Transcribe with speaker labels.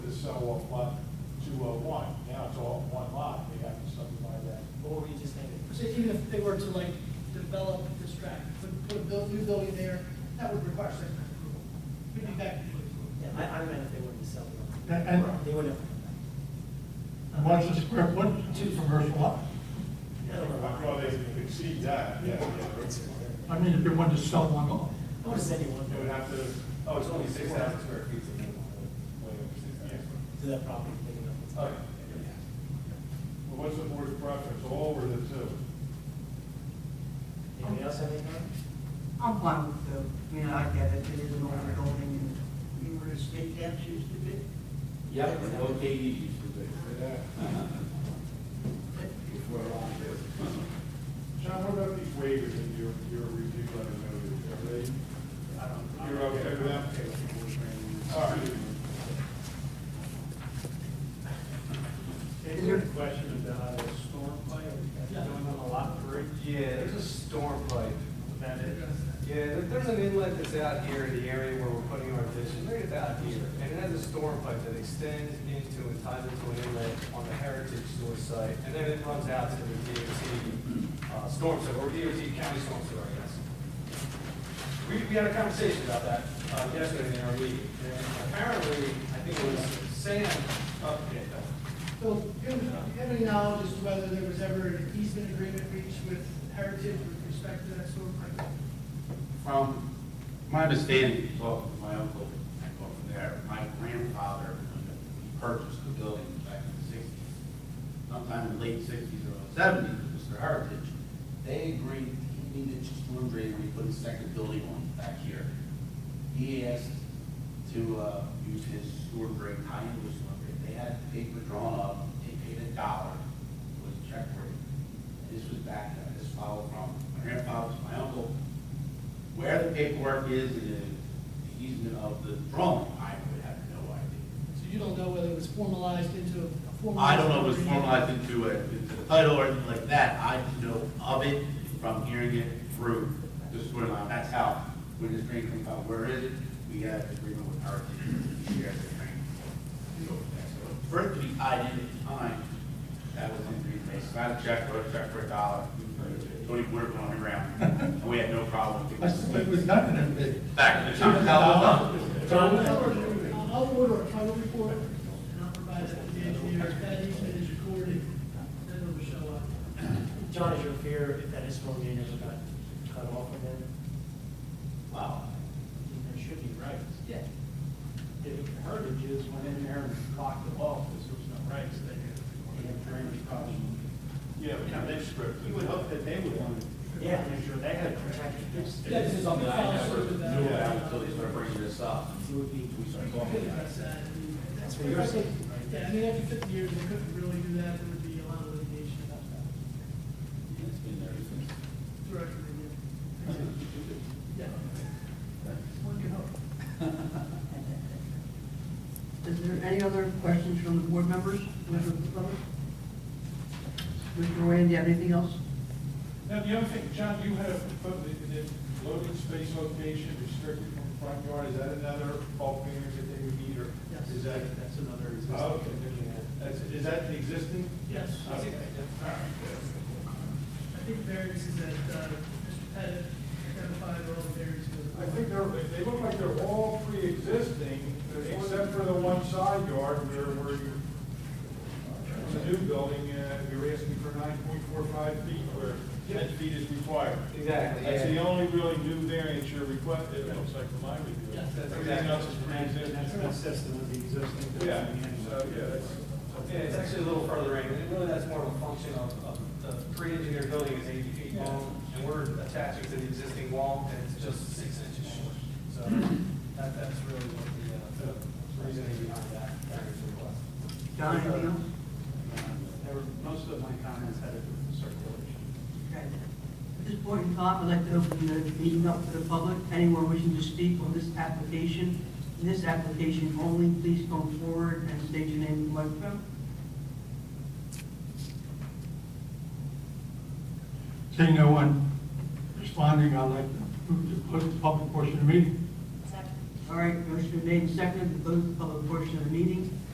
Speaker 1: sell off lot uh, two oh one, now it's all one lot, they have to subdivide that.
Speaker 2: What were you just thinking?
Speaker 3: So even if they were to like develop this track, put, put a build, new building there, that would require site plan approval. We'd be back to you.
Speaker 2: Yeah, I, I meant if they wouldn't sell it.
Speaker 4: And- and-
Speaker 2: They wouldn't.
Speaker 4: What's the square foot to commercial lot?
Speaker 2: I don't know why.
Speaker 1: Well, they exceed that, yeah, yeah.
Speaker 4: I mean, if you wanted to sell one lot.
Speaker 2: What does anyone
Speaker 1: They would
Speaker 2: do
Speaker 1: have to.
Speaker 5: Oh, it's only six thousand square feet. so it's Way over six
Speaker 1: Yeah.
Speaker 5: thousand.
Speaker 2: to that property big enough?
Speaker 5: Oh, yeah.
Speaker 1: Well, What's the board's preference, all or the two?
Speaker 2: Anybody else have any comments?
Speaker 6: I'm fine with the, you know, I get it, it is an older building, and you were to state that used to be.
Speaker 5: Yep, and no KD used to be. Before long.
Speaker 1: John, what about these waivers in your, your review letter noted, are they, you're okay with them? All right.
Speaker 7: Any other question about a storm pipe, that's going on a lot three?
Speaker 8: Yeah, there's a storm pipe.
Speaker 7: That is,
Speaker 8: Yeah, there- there's an inlet that's out here in the area where we're putting our addition, right about here. And it has a storm pipe that extends into and ties into an inlet on the Heritage Store site. And then it runs out to the DOT uh, storm sewer, or DOT county storm sewer, I guess. We, we had a conversation about that uh, yesterday in our meeting. And apparently, I think it was Sam, oh, yeah, no.
Speaker 3: So, do you have- do you have any knowledge as to whether there was ever an easement agreement reached with Heritage with respect to that sort of thing?
Speaker 9: From my understanding, talking to my uncle over there, my grandfather, when he purchased the building back in the sixties, sometime in the late sixties or seventies, Mr. Heritage, they agreed he needed to storm drain, we put a second building on back here. He asked to, uh, use his storm drain, tie into his storm drain, they had the paper drawn up, they paid a dollar, it was a check rate. This was back, uh, this followed from my grandfather to my uncle, where the paperwork is, and the easement of the drawing, I would have no idea.
Speaker 3: So you don't know whether it was formalized into a formal.
Speaker 9: I don't know if it was formalized into a, into the title or anything like that, I just know of it from hearing it through the sewer line, that's how, when this drain comes out, where is it? We have agreement with our, we share the drain. So, that's what- For it to be tied in at the time, that was in three days, not a check, but a check for a dollar, Tony Woodard on the ground, and we had no problem.
Speaker 4: I said, it was nothing in the big.
Speaker 9: Back in the time, that was nothing.
Speaker 3: John, I'll I'll order a title report, and I'll provide that to the engineer, if that easement is recorded, then it'll show up.
Speaker 2: John, is your fear if that is storm drain ever got cut off and then, wow, that should be right.
Speaker 3: Yeah.
Speaker 2: If Heritage is went in there and blocked it off, because there was no rights, they had, they had drainage problem.
Speaker 1: Yeah, but now they've scripted.
Speaker 7: you would hope that they would want to.
Speaker 2: Yeah.
Speaker 7: Make sure they had protected this.
Speaker 3: Yeah,
Speaker 9: This is something I never knew about until they started bringing this up.
Speaker 2: It would be,
Speaker 9: We started
Speaker 3: You
Speaker 9: talking
Speaker 3: could
Speaker 9: about it.
Speaker 3: address that, and that's
Speaker 2: Well, you're saying-
Speaker 3: Yeah, I mean, after fifty years, they couldn't really do that, there would be a lot of litigation about that.
Speaker 9: It's been there since.
Speaker 3: Directly, yeah. Yeah. One can hope.
Speaker 6: Is there any other questions from the board members? Mr. Lovett? Mr. Ryan, do you have anything else?
Speaker 1: Now, the other thing, John, you had a, put the, the loading space location restricted from the front yard, is that another bulk variance that they would need, or is that?
Speaker 2: that's another reason.
Speaker 1: Oh, okay, that's, is that the existing?
Speaker 3: Yes,
Speaker 1: Okay. All right.
Speaker 3: I think variances that, uh, Mr. Pettit identified are all variances.
Speaker 1: I think they're, they- they look like they're all pre-existing, except for the one side yard where, where you, the new building, uh, you're asking for nine point four five feet, where ten feet is required.
Speaker 8: Exactly,
Speaker 1: That's the
Speaker 8: yeah.
Speaker 1: only really new variance you're requesting, it looks like from my review.
Speaker 3: Yes, that's
Speaker 1: Everything else is
Speaker 7: And
Speaker 1: pre-existing.
Speaker 7: that's consistent with the existing.
Speaker 1: Yeah, so, yeah, that's.
Speaker 8: Yeah, it's actually a little further in, and really that's more of a function of, of the pre-engineered building is eighty feet long, and we're attaching to the existing wall, and it's just six inches short. So that, that's really what the, uh, the reasoning behind that variance request.
Speaker 6: John, anything else?
Speaker 7: There were, most of my comments had to do with the circulation.
Speaker 6: Okay. At this point in time, I'd like to open the meeting up to the public. Anyone wishing to speak on this application, this application only, please come forward and state your name and microphone.
Speaker 4: Seeing no one responding, I'd like to move to close the public portion of the meeting.
Speaker 6: All right, motion made and seconded to close the public portion of the meeting.